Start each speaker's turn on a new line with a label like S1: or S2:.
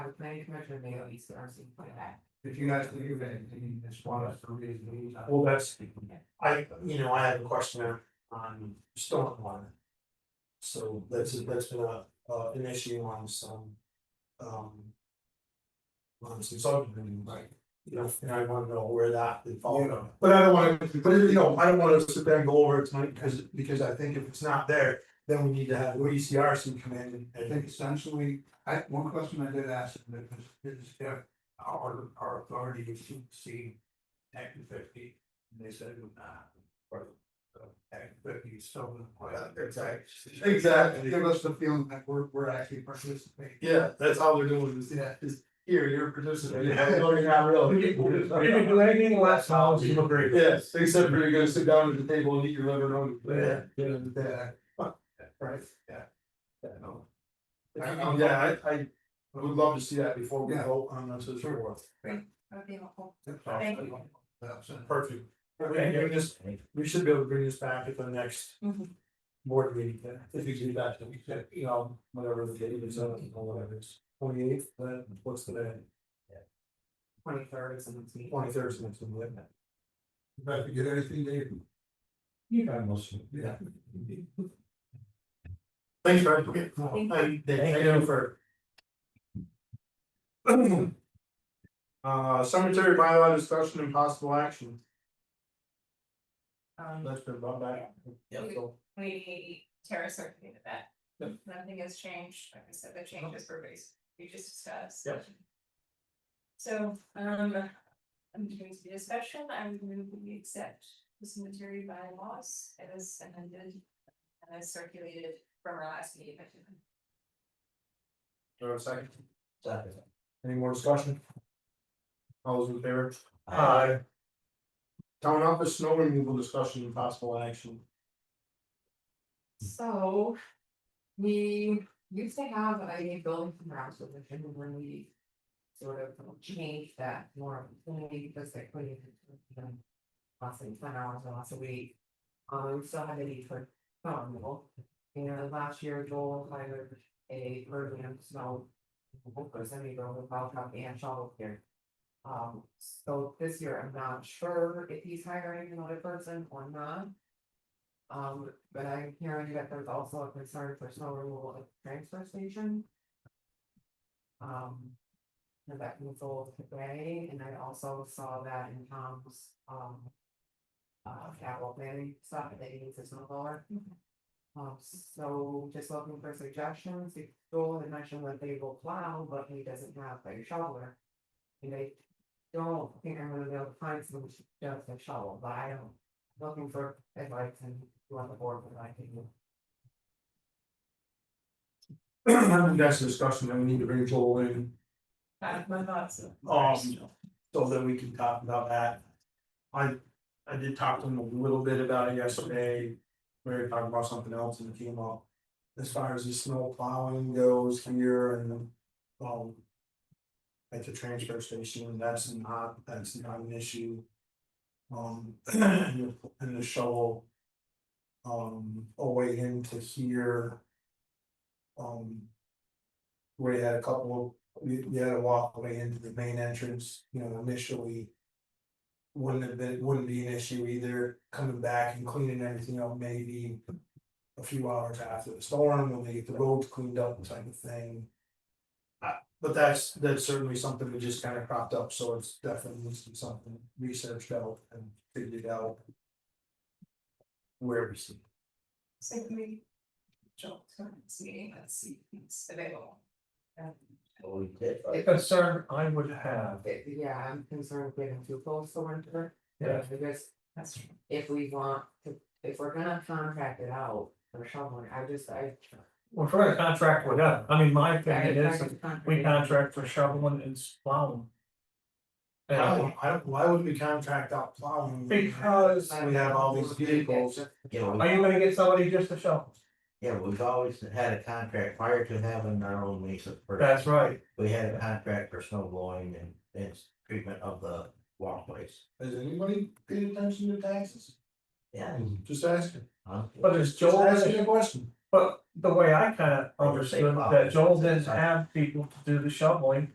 S1: the planning commission, and they go East R C for that.
S2: If you guys leave and you just want us to read these.
S3: Well, that's, I, you know, I have a question on- on stormwater. So that's, that's been a, uh, an issue on some, um. On some subdivision, right, you know, and I wanna know where that would fall
S2: Yeah.
S3: from, but I don't wanna, but you know, I don't wanna sit there and go over it tonight, because, because I think if it's not there. Then we need to have E C R C come in
S2: I
S3: and,
S2: think essentially, I, one question I did ask them is, is if our, our authority would supersede Act fifty, and they said it would not. Or, uh, Act fifty is still in play.
S3: Yeah, exactly.
S2: Exactly, give us the feeling that we're, we're actually participating.
S3: yeah, that's all they're doing is,
S2: Yeah.
S3: is here, you're participating,
S2: Yeah.
S3: no, you're not really.
S4: anything last hours,
S2: you
S4: agree.
S3: Yes, except for you're gonna sit down at the table and eat your liver on.
S2: Yeah.
S3: Yeah.
S2: Right,
S3: Yeah, no.
S2: I-
S3: I-
S2: I'm-
S3: Yeah, I, I would love to see that before we
S2: Yeah.
S3: vote on this as
S2: Sure.
S3: well.
S1: Okay, well,
S2: that's all.
S1: Thank you.
S2: That's it.
S3: Perfect. We can bring this, we should be able to bring this back at the next
S1: Mhm.
S3: board meeting, then, if you do that, then we could, you know, whatever the date is, uh, or whatever it's. Twenty eighth, then what's the day?
S1: twenty third is the next meeting.
S3: Twenty third is next one, isn't it?
S2: If you get anything, Dave.
S4: You got most of
S2: Yeah.
S3: Thanks, Brad. Okay, well, Thank thank you for. Uh, cemetery bylaw discussion and possible action,
S1: Um,
S3: that's been brought back.
S1: Yeah.
S3: So,
S1: Um, we, Tara circulated that.
S3: Yep.
S1: Nothing has changed, like I said, the changes were based, we just discussed.
S3: Yep.
S1: So, um, I'm going to the discussion, I'm going to accept this material by laws as amended. And as circulated from our last meeting.
S3: Do I have a second? Any more discussion? All those in favor? Uh, Town office snow removal discussion and possible action.
S1: So we used to have a building from grounds division when we sort of changed that norm, only because they couldn't. um, Lasting ten hours or less a week. Um, we still had a need for snow removal. And um, last year Joel hired a program snow. removal person, we go with plow truck and shovel here. Um, so this year I'm not sure if he's hiring another person or not. Um, but I'm hearing that there's also a concern for snow removal at the transfer station. Um. And that was sold today, and I also saw that in Tom's, um. Uh, capital planning stuff that he needs a snow blower. Um, so just looking for suggestions, if Joel had mentioned that they will plow, but he doesn't have a shoveler. And I don't think I'm gonna be able to find someone who does a shovel, but I don't looking for advice and you on the board with I think.
S3: I think that's a discussion that we need to bring Joel in,
S1: my thoughts.
S3: um, so that we can talk about that. I, I did talk to him a little bit about it yesterday, we were talking about something else and it came up. As far as the snow plowing goes here and, um. At the transfer station, that's not, that's not an issue. Um, and the- and the shovel. Um, away into here. Um. We had a couple, we, we had a walkway into the main entrance, you know, initially. Wouldn't have been, wouldn't be an issue either, coming back and cleaning everything up, maybe. A few hours after the storm, when they get the roads cleaned up type of thing. Uh, but that's, that's certainly something that just kind of cropped up, so it's definitely needs to be something researched out and figured out. Where we see.
S1: So can we jump to the next meeting, let's see if it's available. Um,
S4: The concern I would have,
S1: it- yeah, I'm concerned getting too close to winter.
S4: Yeah.
S1: Because
S4: That's true.
S1: if we want to, if we're gonna contract it out for shoveling, I just, I.
S4: well, for a contract with them, I mean, my opinion
S1: I- I
S4: is,
S1: just
S4: that
S1: contract
S4: we
S1: it out.
S4: contract for shoveling and plowing.
S3: I
S4: And
S3: don't, I don't, why would we contract out plowing?
S4: because,
S3: we have all these vehicles.
S5: Yeah, we,
S4: are you gonna get somebody just to shovel?
S5: yeah, we've always had a contract prior to having our own Mesa first.
S4: That's right,
S5: We had a contract for snow blowing and, and treatment of the walkways.
S3: Has anybody paid attention to taxes?
S5: Yeah.
S3: Just asking.
S5: huh?
S4: but it's
S3: Just
S4: Joel,
S3: asking a question.
S4: but the way I kind of
S5: Or the same
S4: understood
S5: problem.
S4: that Joel didn't have people to do the shoveling.